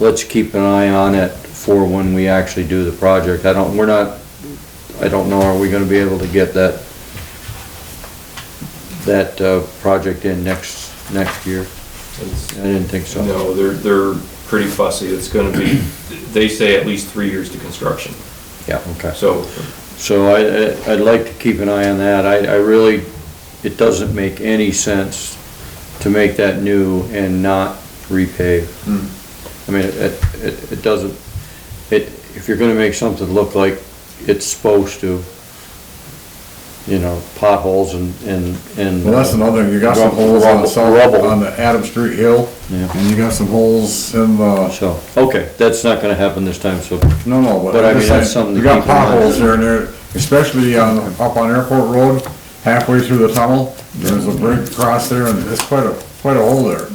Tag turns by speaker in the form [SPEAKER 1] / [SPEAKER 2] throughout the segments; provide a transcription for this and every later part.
[SPEAKER 1] let's keep an eye on it for when we actually do the project. I don't, we're not, I don't know, are we gonna be able to get that, that, uh, project in next, next year? I didn't think so.
[SPEAKER 2] No, they're, they're pretty fussy. It's gonna be, they say at least three years to construction.
[SPEAKER 1] Yeah, okay.
[SPEAKER 2] So
[SPEAKER 1] So I, I- I'd like to keep an eye on that. I, I really, it doesn't make any sense to make that new and not repave.
[SPEAKER 2] Hmm.
[SPEAKER 1] I mean, it, it, it doesn't, it, if you're gonna make something look like it's supposed to, you know, potholes and, and, and.
[SPEAKER 3] Well, that's another, you got some holes on the south,
[SPEAKER 1] Rubble.
[SPEAKER 3] on the Adam Street Hill,
[SPEAKER 1] Yeah.
[SPEAKER 3] and you got some holes in the,
[SPEAKER 1] So, okay, that's not gonna happen this time, so,
[SPEAKER 3] no, no, but
[SPEAKER 1] But I
[SPEAKER 3] I'm
[SPEAKER 1] mean,
[SPEAKER 3] just
[SPEAKER 1] that's something
[SPEAKER 3] saying, you
[SPEAKER 1] to
[SPEAKER 3] got
[SPEAKER 1] keep in mind.
[SPEAKER 3] potholes there and there, especially on, up on Airport Road, halfway through the tunnel, there's a break across there, and it's quite a, quite a hole there.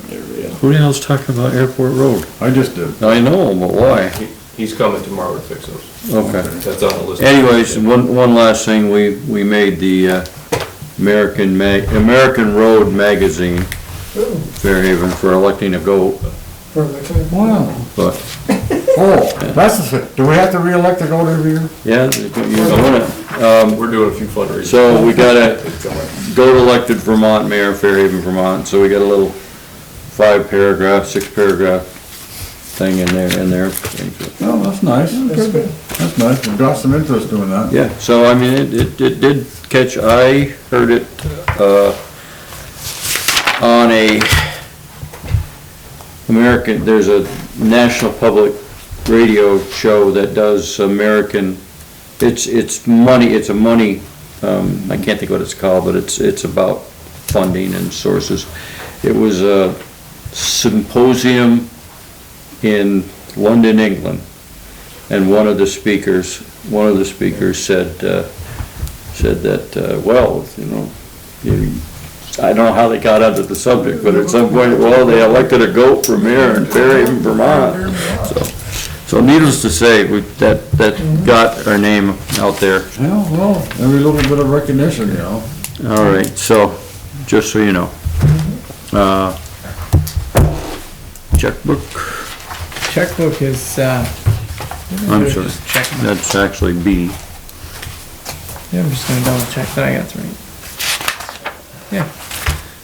[SPEAKER 4] Who the hell's talking about Airport Road?
[SPEAKER 3] I just did.
[SPEAKER 1] I know, but why?
[SPEAKER 2] he- he's coming tomorrow to fix those.
[SPEAKER 1] Okay.
[SPEAKER 2] That's on the list.
[SPEAKER 1] Anyways, one, one last thing, we, we made the uh, American Mag, American Road Magazine, Fairhaven, for electing a goat,
[SPEAKER 3] Wow.
[SPEAKER 1] but,
[SPEAKER 3] Oh, that's the, do we have to reelect the goat every year?
[SPEAKER 1] yeah, you're doing it.
[SPEAKER 2] Um, We're doing a few fundraisers. Oh,
[SPEAKER 1] So we got a goat elected Vermont mayor, Fairhaven, Vermont, so we got a little five paragraph, six paragraph thing in there, in there.
[SPEAKER 3] Oh, that's nice. That's good. That's nice, we've got some interest doing that.
[SPEAKER 1] Yeah, so I mean, it, it, it did catch, I heard it, uh, on a American, there's a national public radio show that does American, it's, it's money, it's a money, um, I can't think what it's called, but it's, it's about funding and sources. It was a symposium in London, England, and one of the speakers, one of the speakers said, uh, said that, uh, well, you know, you- I don't know how they got onto the subject, but at some point, well, they elected a goat from here in Fairhaven, Vermont. So, so needless to say, we, that, that got our name out there.
[SPEAKER 3] Yeah, well, every little bit of recognition, you know.
[SPEAKER 1] All right, so, just so you know. Uh, Checkbook,
[SPEAKER 5] Checkbook is, uh.
[SPEAKER 1] I'm sorry,
[SPEAKER 5] Just check my-
[SPEAKER 1] that's actually B.
[SPEAKER 5] Yeah, I'm just gonna double check that I got three. Yeah.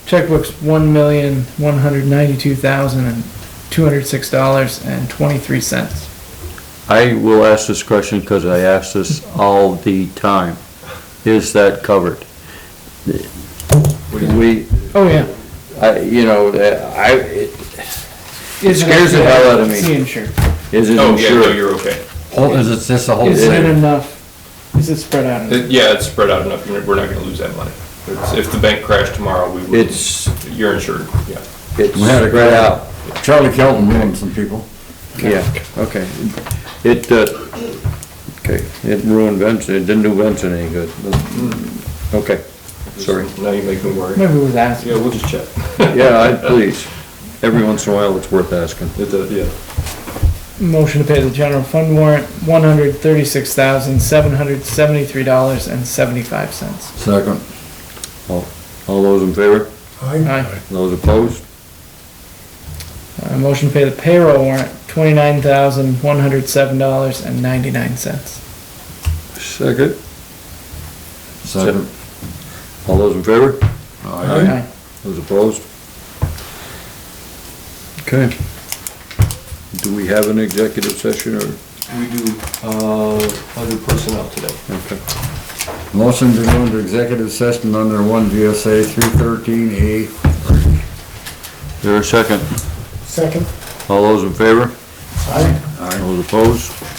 [SPEAKER 5] Checkbook's one million, one hundred ninety-two thousand and two hundred six dollars and twenty-three cents.
[SPEAKER 1] I will ask this question because I ask this all the time. Is that covered? We,
[SPEAKER 5] Oh, yeah.
[SPEAKER 1] I, you know, uh, I, it-
[SPEAKER 5] Is
[SPEAKER 1] Scares the hell out of me.
[SPEAKER 5] See insurance.
[SPEAKER 1] is it
[SPEAKER 2] Oh, yeah, no,
[SPEAKER 1] insured?
[SPEAKER 2] you're okay.
[SPEAKER 4] Oh, Is it just a whole?
[SPEAKER 5] Is it enough? Is it spread out enough?
[SPEAKER 2] It- Yeah, it's spread out enough. We're not gonna lose that money. It's- If the bank crashed tomorrow, we would.
[SPEAKER 1] It's,
[SPEAKER 2] You're insured, yeah.
[SPEAKER 1] it's
[SPEAKER 3] We had a-
[SPEAKER 1] spread out,
[SPEAKER 3] Charlie Kelton ruined some people.
[SPEAKER 1] yeah, okay. It, uh, okay, it ruined Benson, it didn't do Benson any good. mm, Okay, sorry.
[SPEAKER 2] Now you make me worry.
[SPEAKER 5] Maybe it was asked.
[SPEAKER 2] Yeah, we'll just check.
[SPEAKER 1] Yeah, I, please, every once in a while, it's worth asking.
[SPEAKER 2] It does, yeah.
[SPEAKER 5] Motion to pay the general fund warrant, one hundred thirty-six thousand, seven hundred seventy-three dollars and seventy-five cents.
[SPEAKER 3] Second.
[SPEAKER 1] All those in favor?
[SPEAKER 5] Aye.
[SPEAKER 1] Those opposed?
[SPEAKER 5] Uh, motion to pay the payroll warrant, twenty-nine thousand, one hundred seven dollars and ninety-nine cents.
[SPEAKER 1] Second.
[SPEAKER 3] Second.
[SPEAKER 1] All those in favor?
[SPEAKER 3] Aye.
[SPEAKER 5] Aye.
[SPEAKER 1] Those opposed? Okay. Do we have an executive session or?
[SPEAKER 2] We do, uh, other personnel today.
[SPEAKER 1] okay.
[SPEAKER 3] Motion to go into executive session under one VSA three thirteen A.
[SPEAKER 1] There a second? Second. All those in favor?
[SPEAKER 3] Aye.
[SPEAKER 1] Those opposed?